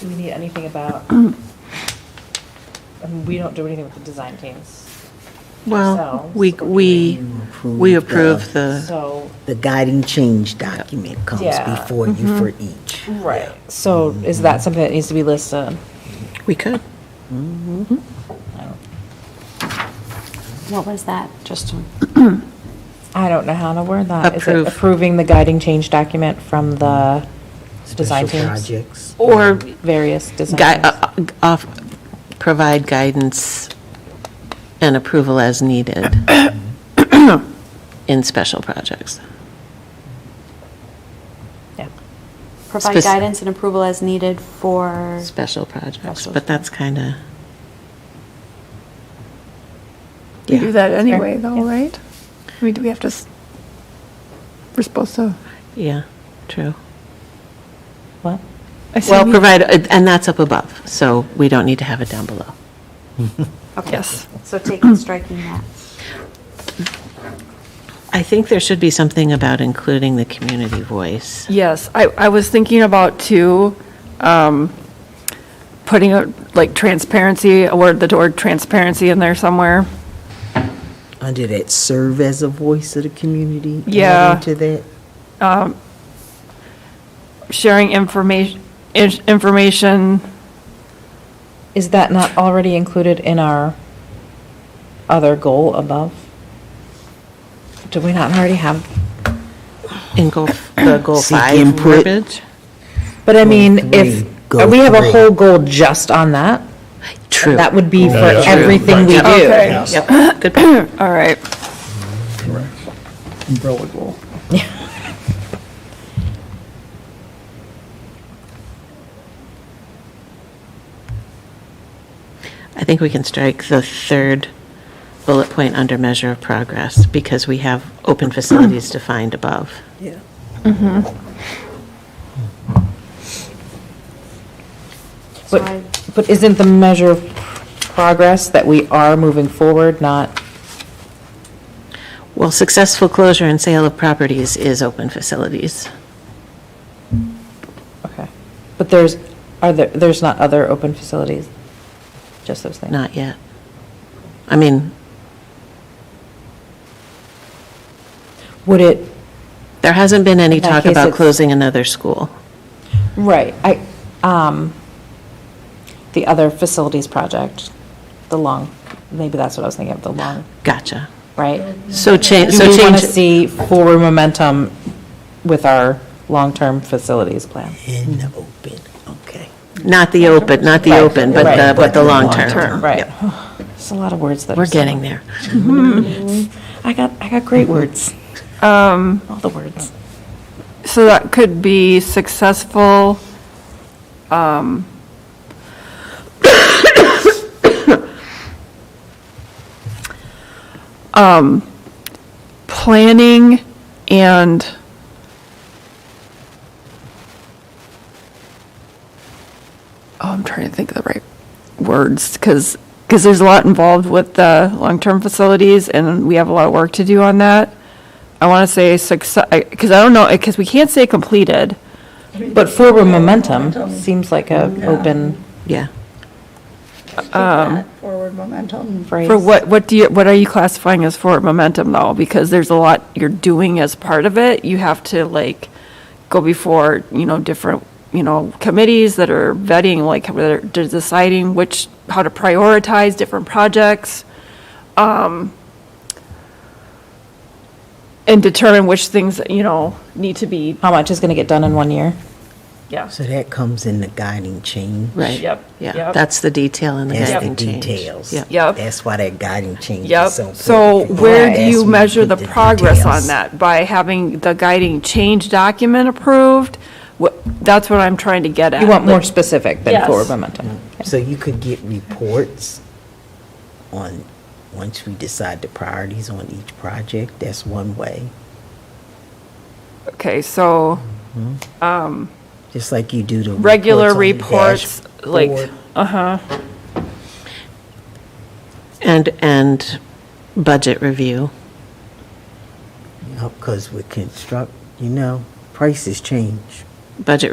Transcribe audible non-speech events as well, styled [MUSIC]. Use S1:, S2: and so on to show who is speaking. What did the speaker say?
S1: Do we need anything
S2: [CLEARS THROAT]
S1: about, I mean, we don't do anything with the design teams,
S3: Well,
S1: Ourselves.
S3: we, we, we approve
S2: Uh.
S3: the,
S1: so.
S2: The guiding change document comes
S1: Yeah.
S2: before
S4: Mm-hmm.
S2: you for each.
S1: Right. So is that something that needs to be listed?
S3: we could.
S5: What was that? Just to
S1: I don't know how to word that. Is it
S3: Approve.
S1: approving the guiding change document from the design
S2: Special
S1: teams?
S2: projects.
S3: Or
S1: Various design
S3: gui-
S1: teams?
S3: uh, uh, off, provide guidance and approval as needed in special projects.
S1: Yeah.
S5: provide
S3: Spec-
S5: guidance and approval as needed for,
S3: Special projects,
S5: Special.
S3: but that's kind of.
S4: We do that anyway,
S1: Fair.
S4: though,
S1: Yeah.
S4: right? I mean, do we have to, s- we're supposed to,
S3: Yeah, true.
S1: What?
S4: I see,
S3: Well,
S4: we-
S3: provide, uh, and that's up above, so we don't need to have it down below.
S5: okay.
S4: yes.
S5: So taking, striking that.
S3: I think there should be something about including the community voice.
S4: Yes, I, I was thinking about too, um, putting a, like transparency, a word, the word transparency in there somewhere.
S2: Under that, serve as a voice of the community. add
S4: Yeah.
S2: Into that.
S4: Sharing information, information,
S1: Is that not already included in our other goal above? Do we not already have?
S3: In goal, the goal
S2: Seek
S3: five
S2: input.
S3: verbiage?
S1: But I mean, if,
S2: Goal
S1: uh,
S2: three, goal
S1: we have a
S2: three.
S1: whole goal just on that?
S3: True.
S1: That would be for
S6: Oh, Yeah, yeah.
S1: everything we
S6: Right.
S1: do.
S4: okay,
S3: Yep, good point.
S4: all right.
S6: Umbrella goal.
S3: I think we can strike the third bullet point under measure of progress because we have
S1: [CLEARS THROAT]
S3: open facilities defined above.
S2: Yeah.
S5: So I-
S1: But, but isn't the measure of progress that we are moving forward not,
S3: Well, successful closure and sale of properties is open facilities.
S1: okay. But there's, are there, there's not other open facilities? Just those things?
S3: Not yet. I mean,
S1: Would it,
S3: there hasn't been any
S1: In that
S3: talk
S1: case,
S3: about
S1: it's-
S3: closing another school.
S1: right, I, um, the other facilities project, the long, maybe that's what I was thinking of, the long,
S3: Gotcha.
S1: right?
S3: So change,
S1: So
S3: so
S1: we want
S3: change.
S1: to see forward momentum with our long-term facilities plan?
S2: In the open, okay.
S3: Not the open, not the
S1: Right,
S3: open, but
S1: right,
S3: the, but the long
S1: Term,
S3: term.
S1: right.
S3: Yep.
S1: [SIGHS] There's a lot of words that are.
S3: We're getting there.
S1: I got, I got great words,
S4: Um,
S1: all the words.
S4: so that could be successful, um, [COUGHS] um, planning and oh, I'm trying to think of the right words, because, because there's a lot involved with the long-term facilities, and we have a lot of work to do on that. I want to say success, because I don't know, because we can't say completed.
S1: But forward momentum seems like a open
S3: Yeah.
S7: that forward momentum.
S1: phrase.
S4: For what, what do you, what are you classifying as forward momentum, though? Because there's a lot you're doing as part of it. You have to, like, go before, you know, different, you know, committees that are vetting, like, whether they're deciding which, how to prioritize different projects. Um, and determine which things, you know, need to be.
S1: How much is going to get done in one year?
S4: Yes.
S2: So that comes in the guiding change.
S3: Right.
S4: Yep,
S3: Yeah,
S4: yep.
S3: that's the detail in the
S2: That's the
S3: guiding change.
S2: details.
S3: Yeah.
S4: Yep.
S2: That's why that guiding change
S4: Yep,
S2: is so important.
S4: so
S2: because
S4: where do
S2: that's
S4: you
S2: when
S4: measure
S2: put
S4: the progress on
S2: details.
S4: that? By having the guiding change document approved? Wha- That's what I'm trying to get at.
S1: You want more specific than
S4: Yes.
S1: forward momentum.
S2: So you could get reports on, once we decide the priorities on each project, that's one way.
S4: Okay, so
S2: Just like you do the.
S4: regular
S2: reports
S4: reports,
S2: on the
S4: like,
S2: dashboard.
S4: uh-huh,
S3: And, and budget review.
S2: Because with construct, you know, prices change.
S3: Budget